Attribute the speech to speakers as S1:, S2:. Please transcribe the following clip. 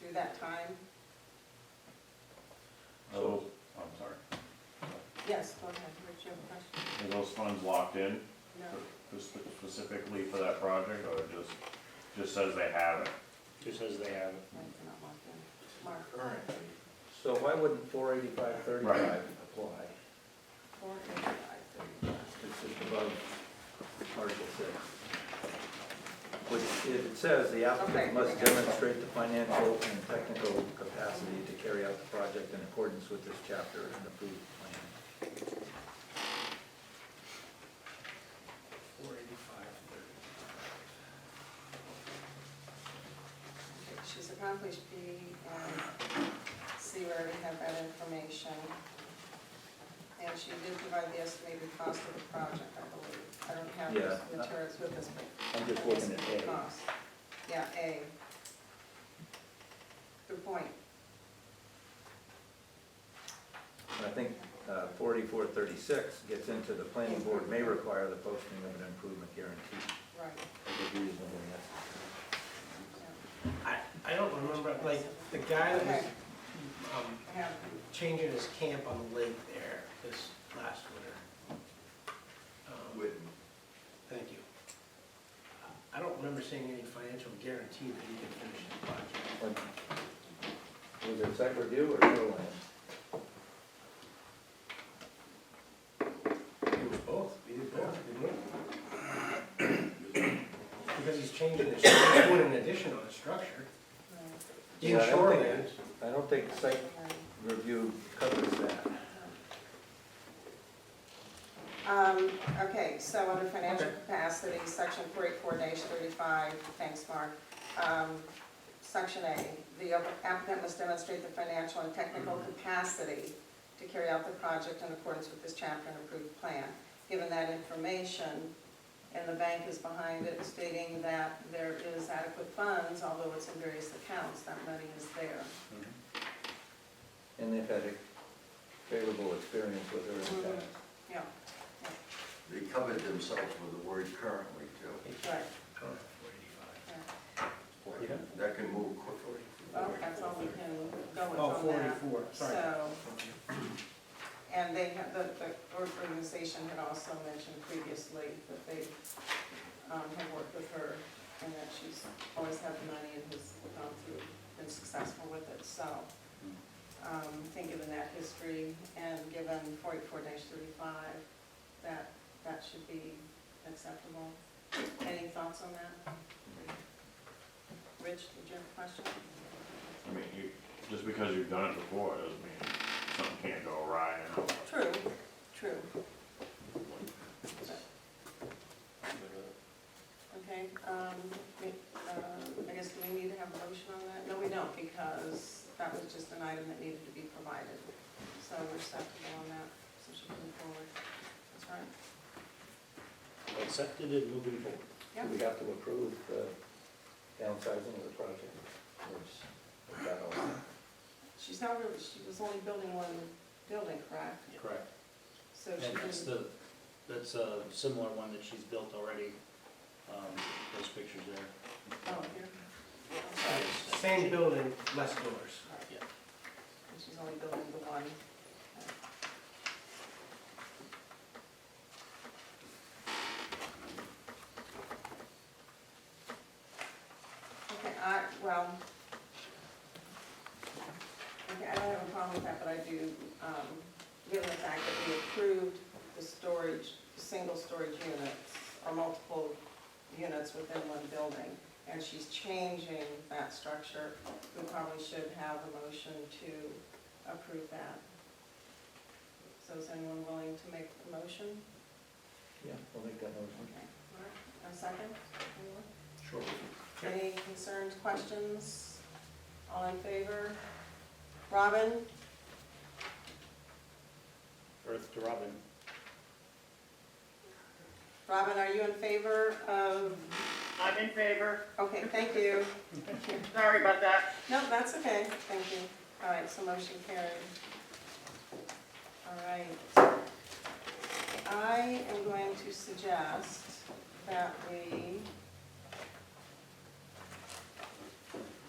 S1: do that time?
S2: So, I'm sorry,
S1: Yes, go ahead, Rich, you have a question?
S2: are those funds locked in
S1: No,
S2: for- specifically for that project, or it just, just says they have it?
S3: Just as they have it.
S1: no, it's not locked in. Mark,
S4: Currently,
S5: So why wouldn't four eighty-five
S2: Right.
S5: thirty-five apply?
S1: four, eight, five, thirty.
S5: It's just above Article six. Which, if it says, the
S1: Okay.
S5: applicant must demonstrate the financial and technical capacity to carry out the project in accordance with this chapter and approved plan.
S4: four eighty-five thirty.
S1: Okay, She's accomplished B and C, we already have that information. And she did provide the estimated cost of the project, I believe. I don't have those
S5: Yeah.
S1: materials with us, but.
S5: I'm just looking at A.
S1: Cost. Yeah, A. Good point.
S5: I think forty-four thirty-six gets into the planning board may require the posting of an improvement guarantee.
S1: Right.
S5: as a reasonable necessary.
S1: yeah.
S4: I, I don't remember, like, the guy that was, um,
S1: I have,
S4: changing his camp on the lake there this last winter. Um, Thank you. I don't remember seeing any financial guarantee that he could finish the project.
S5: Was it site review or shoreline?
S4: It was both, we did both, didn't we? Because he's changing the, he's doing an addition on the structure.
S1: right,
S5: Yeah,
S4: In
S5: I don't think-
S4: shoreline,
S5: I don't think site
S1: right.
S5: review covers that.
S1: Um, okay, so under financial
S4: Okay.
S1: capacity, section forty-four thirty-five, thanks, Mark. Um, section A, the applicant must demonstrate the financial and technical
S4: Mm-hmm.
S1: capacity to carry out the project in accordance with this chapter and approved plan. Given that information, and the bank is behind it stating that there is adequate funds, although it's in various accounts, that money is there.
S5: And they've had a favorable experience with her in the past.
S1: Yeah,
S6: They covered themselves with the word currently too.
S1: right,
S4: Four
S1: yeah.
S3: Yeah.
S6: That can move quickly.
S1: Well, that's all we can go with
S4: Oh,
S1: on that.
S4: 44, sorry.
S1: So, and they have, the, the organization had also mentioned previously that they, um, have worked with her and that she's always had the money and has gone through, been successful with it, so. Um, I think given that history and given forty-four thirty-five, that, that should be acceptable. Any thoughts on that? Rich, did you have a question?
S2: I mean, you, just because you've done it before, doesn't mean something can't go awry, you know?
S1: True, true. Okay, um, we, uh, I guess do we need to have a motion on that? No, we don't, because that was just an item that needed to be provided. So we're set to go on that, so she can move forward. That's right.
S3: Accepted and moving forward.
S1: Yeah.
S5: We have to approve the downsizing of the project, which, that all,
S1: She's not really, she was only building one building, correct?
S3: Correct.
S1: So she
S3: And that's
S1: can,
S3: the, that's a similar one that she's built already, um, those pictures there.
S1: oh, here. I'm sorry.
S4: Same building, less doors.
S1: And she's only building the one. Okay, I, well, okay, I don't have a problem with that, but I do, um, given the fact that we approved the storage, single storage units, or multiple units within one building, and she's changing that structure, we probably should have a motion to approve that. So is anyone willing to make the motion?
S5: yeah, we'll make that motion.
S1: Okay. Mark, A second? Anyone?
S4: Sure.
S1: Any concerns, questions? All in favor? Robin?
S3: Earth to Robin.
S1: Robin, are you in favor of,
S7: I'm in favor.
S1: okay, thank you.
S7: Sorry about that.
S1: No, that's okay, thank you. All right, so motion carried. All right. I am going to suggest that we